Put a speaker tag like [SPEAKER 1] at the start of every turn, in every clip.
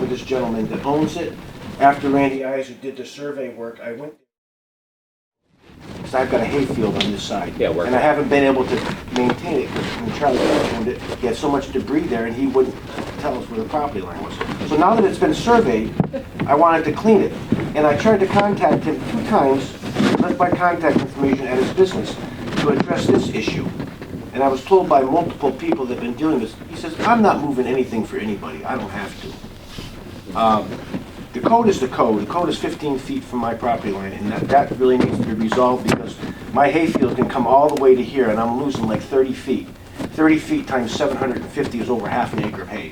[SPEAKER 1] with this gentleman that owns it. After Randy Iser did the survey work, I went, because I've got a hayfield on this side.
[SPEAKER 2] Yeah, work.
[SPEAKER 1] And I haven't been able to maintain it, because when Charlie mentioned it, he had so much debris there, and he wouldn't tell us where the property line was. So now that it's been surveyed, I wanted to clean it. And I tried to contact him two times, left my contact information at his business, to address this issue. And I was told by multiple people that have been dealing with this, he says, I'm not moving anything for anybody, I don't have to. The code is the code. The code is 15 feet from my property line, and that, that really needs to be resolved because my hayfield can come all the way to here, and I'm losing like 30 feet. 30 feet times 750 is over half an acre of hay.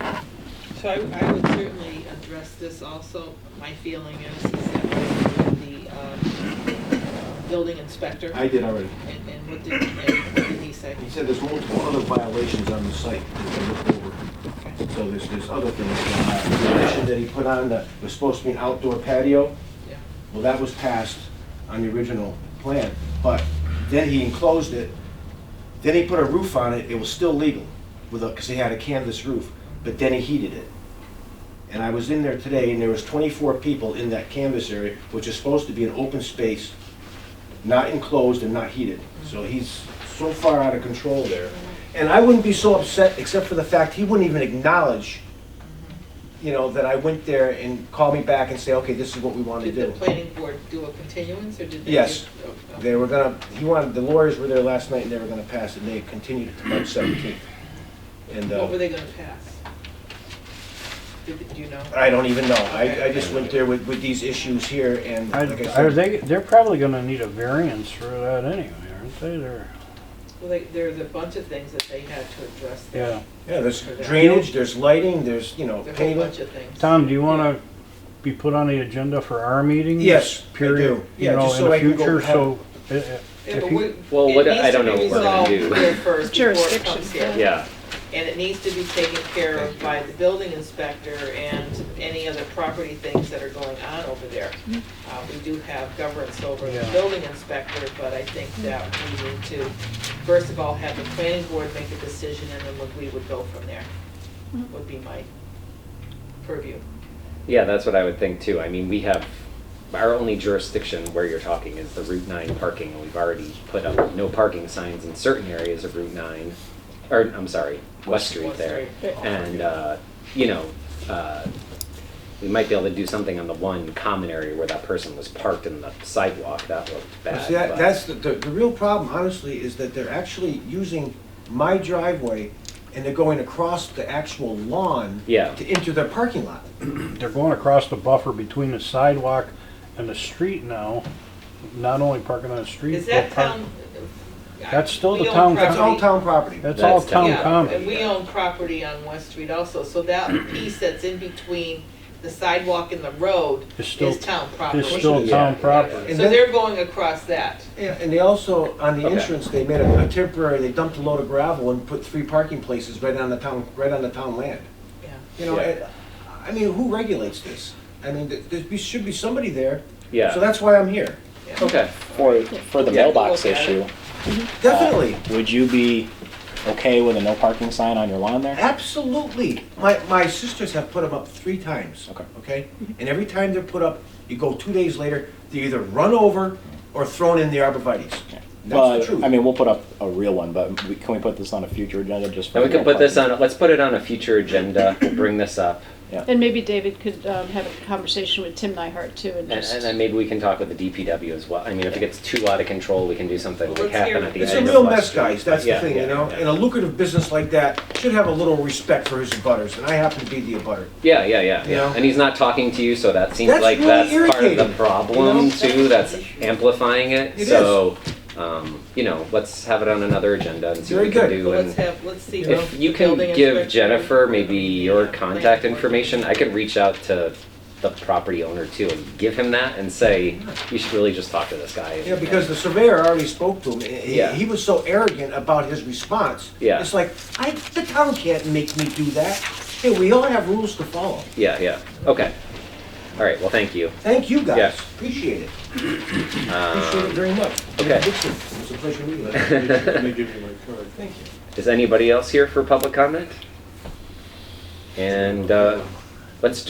[SPEAKER 3] So I, I would certainly address this also. My feeling is, is that with the, um, building inspector.
[SPEAKER 1] I did already.
[SPEAKER 3] And, and what did, and what did he say?
[SPEAKER 1] He said there's multiple other violations on the site that they looked over.
[SPEAKER 3] Okay,
[SPEAKER 1] So there's, there's other things. going on. The condition that he put on that was supposed to be an outdoor patio,
[SPEAKER 3] yeah.
[SPEAKER 1] Well, that was passed on the original plan, but then he enclosed it, then he put a roof on it, it was still legal, with a, because he had a canvas roof, but then he heated it. And I was in there today, and there was twenty-four people in that canvas area, which is supposed to be an open space, not enclosed and not heated. So he's so far out of control there. And I wouldn't be so upset, except for the fact he wouldn't even acknowledge, you know, that I went there and called me back and say, okay, this is what we want to
[SPEAKER 3] Did
[SPEAKER 1] do.
[SPEAKER 3] the planning board do a continuance, or did they?
[SPEAKER 1] Yes.
[SPEAKER 3] just- oh, okay.
[SPEAKER 1] They were gonna, he wanted, the lawyers were there last night and they were gonna pass it, and they continued it to March seventeenth. And,
[SPEAKER 3] What were
[SPEAKER 1] uh,
[SPEAKER 3] they gonna pass? Did, do you know?
[SPEAKER 1] I don't even know, I, I just went there with, with these issues here and,
[SPEAKER 4] I-
[SPEAKER 1] like I
[SPEAKER 4] Are
[SPEAKER 1] said,
[SPEAKER 4] they, they're probably gonna need a variance for that anyway, aren't they? They're,
[SPEAKER 3] Well, they, there's a bunch of things that they had to address
[SPEAKER 4] yeah.
[SPEAKER 3] there.
[SPEAKER 1] yeah, there's drainage, there's lighting, there's, you know,
[SPEAKER 3] There's a whole
[SPEAKER 1] pavement.
[SPEAKER 3] bunch of things.
[SPEAKER 4] Tom, do you wanna be put on the agenda for our meetings?
[SPEAKER 1] Yes, I
[SPEAKER 4] Period,
[SPEAKER 1] do.
[SPEAKER 4] you
[SPEAKER 1] Yeah,
[SPEAKER 4] know,
[SPEAKER 1] just
[SPEAKER 4] in
[SPEAKER 1] so
[SPEAKER 4] the
[SPEAKER 1] I can go
[SPEAKER 4] future,
[SPEAKER 1] have-
[SPEAKER 4] so. uh, uh,
[SPEAKER 3] Yeah,
[SPEAKER 4] if
[SPEAKER 3] but
[SPEAKER 4] you-
[SPEAKER 3] we-
[SPEAKER 2] Well,
[SPEAKER 3] it
[SPEAKER 2] what- I
[SPEAKER 3] needs to
[SPEAKER 2] don't know
[SPEAKER 3] be
[SPEAKER 2] what we're gonna
[SPEAKER 3] resolved
[SPEAKER 2] do.
[SPEAKER 3] here first before it
[SPEAKER 5] Jurisdiction,
[SPEAKER 3] comes here.
[SPEAKER 2] Yeah,
[SPEAKER 3] And it needs to be taken care of by the building inspector and any other property things that are going on over there. Uh, we do have governance over the
[SPEAKER 4] Yeah.
[SPEAKER 3] building inspector, but I think that we need to, first of all, have the planning board make a decision and then we would go from there, would be my purview.
[SPEAKER 2] yeah, that's what I would think too. I mean, we have, our only jurisdiction where you're talking is the Route 9 parking. and We've already put up no parking signs in certain areas of Route 9, or, I'm sorry, West Street
[SPEAKER 3] West
[SPEAKER 2] there.
[SPEAKER 3] Street.
[SPEAKER 2] And, uh, you know, uh, we might be able to do something on the one common area where that person was parked in the sidewalk. That looked
[SPEAKER 1] But
[SPEAKER 2] bad.
[SPEAKER 1] See, that,
[SPEAKER 2] but-
[SPEAKER 1] that's, the, the, the real problem honestly is that they're actually using my driveway and they're going across the actual lawn
[SPEAKER 2] Yeah.
[SPEAKER 1] to enter their parking lot.
[SPEAKER 4] They're going across the buffer between the sidewalk and the street now, not only parking on the street.
[SPEAKER 3] Is
[SPEAKER 4] but
[SPEAKER 3] that
[SPEAKER 4] park-
[SPEAKER 3] town? uh,
[SPEAKER 4] That's still
[SPEAKER 3] we
[SPEAKER 4] the
[SPEAKER 3] own
[SPEAKER 4] town
[SPEAKER 3] property-
[SPEAKER 1] It's all town property.
[SPEAKER 4] That's all
[SPEAKER 2] That's town
[SPEAKER 4] town
[SPEAKER 3] Yeah,
[SPEAKER 4] common.
[SPEAKER 3] And we own property on West Street also, so that piece that's in between the sidewalk and the road
[SPEAKER 4] It's still-
[SPEAKER 3] is town property.
[SPEAKER 4] It's still
[SPEAKER 2] Yeah.
[SPEAKER 4] town
[SPEAKER 2] Yeah.
[SPEAKER 4] property.
[SPEAKER 3] So they're going across that.
[SPEAKER 1] Yeah, and they also, on the
[SPEAKER 2] Okay.
[SPEAKER 1] entrance, they made a a temporary, they dumped a load of gravel and put three parking places right on the town, right on the town land.
[SPEAKER 3] Yeah.
[SPEAKER 1] You know,
[SPEAKER 2] Yeah.
[SPEAKER 1] and, I mean, who regulates this? I mean, th- there be- should be somebody there.
[SPEAKER 2] Yeah.
[SPEAKER 1] So that's why I'm here.
[SPEAKER 3] yeah.
[SPEAKER 2] Okay.
[SPEAKER 6] For, for the
[SPEAKER 2] Yeah, we'll
[SPEAKER 6] mailbox
[SPEAKER 3] look at it.
[SPEAKER 6] issue,
[SPEAKER 1] Definitely,
[SPEAKER 6] would you be okay with a no parking sign on your lawn there?
[SPEAKER 1] absolutely. My, my sisters have put them up three times.
[SPEAKER 6] Okay.
[SPEAKER 1] Okay? And every time they're put up, you go two days later, they're either run over or thrown in the arborvitae's. That's the
[SPEAKER 6] But,
[SPEAKER 1] truth.
[SPEAKER 6] I mean, we'll put up a real one, but we- can we put this on a future agenda just for?
[SPEAKER 2] And we can
[SPEAKER 6] no
[SPEAKER 2] put this
[SPEAKER 6] parking?
[SPEAKER 2] on, let's put it on a future agenda, We'll bring this up.
[SPEAKER 5] And maybe David could um, have a conversation with Tim Nyhart too and
[SPEAKER 2] And,
[SPEAKER 5] just.
[SPEAKER 2] and then maybe we can talk with the DPW as well. I mean, if it gets too out of control, we can do something
[SPEAKER 3] Well,
[SPEAKER 2] like
[SPEAKER 3] let's hear
[SPEAKER 2] happen at
[SPEAKER 3] it.
[SPEAKER 2] the
[SPEAKER 1] It's a
[SPEAKER 2] end of
[SPEAKER 1] real
[SPEAKER 2] last
[SPEAKER 1] mess,
[SPEAKER 2] year.
[SPEAKER 1] guys, that's the
[SPEAKER 2] Yeah,
[SPEAKER 1] thing,
[SPEAKER 2] yeah,
[SPEAKER 1] you know?
[SPEAKER 2] yeah.
[SPEAKER 1] And a lucrative business like that should have a little respect for his abutters, and I happen to be the abutter.
[SPEAKER 2] Yeah, yeah, yeah,
[SPEAKER 1] You know?
[SPEAKER 2] yeah. And he's not talking to you, so that seems
[SPEAKER 1] That's
[SPEAKER 2] like
[SPEAKER 1] really
[SPEAKER 2] that's part of the
[SPEAKER 1] irritating,
[SPEAKER 2] problem
[SPEAKER 1] you know?
[SPEAKER 2] too. That's amplifying it.
[SPEAKER 1] It is.
[SPEAKER 2] so, um, you know, let's have it on another agenda and see
[SPEAKER 1] Very
[SPEAKER 2] what we
[SPEAKER 1] good.
[SPEAKER 2] can do.
[SPEAKER 3] Well,
[SPEAKER 2] and
[SPEAKER 3] let's have, let's see. what
[SPEAKER 2] if you
[SPEAKER 3] the
[SPEAKER 2] can
[SPEAKER 3] building
[SPEAKER 2] give
[SPEAKER 3] inspector-
[SPEAKER 2] Jennifer maybe
[SPEAKER 1] uh,
[SPEAKER 2] your contact
[SPEAKER 3] Planning board.
[SPEAKER 2] information, I could reach out to the property owner too and give him that and say, you should really just talk to this guy.
[SPEAKER 1] Yeah, because the surveyor already spoke to him, and
[SPEAKER 2] Yeah.
[SPEAKER 1] he- he was so arrogant about his response.
[SPEAKER 2] Yeah.
[SPEAKER 1] It's like, I, the town can't make me do that. Hey, we all have rules to follow.
[SPEAKER 2] Yeah, yeah. Okay. All right. Well, thank you.
[SPEAKER 1] Thank you, guys,
[SPEAKER 2] Yes.
[SPEAKER 1] appreciate it. Appreciate it very much.
[SPEAKER 2] Um, okay.
[SPEAKER 1] Dixon, It's a pleasure meeting you.
[SPEAKER 7] Let me give you my card.
[SPEAKER 1] Thank you.
[SPEAKER 2] Is anybody else here for public comment? And uh, let's do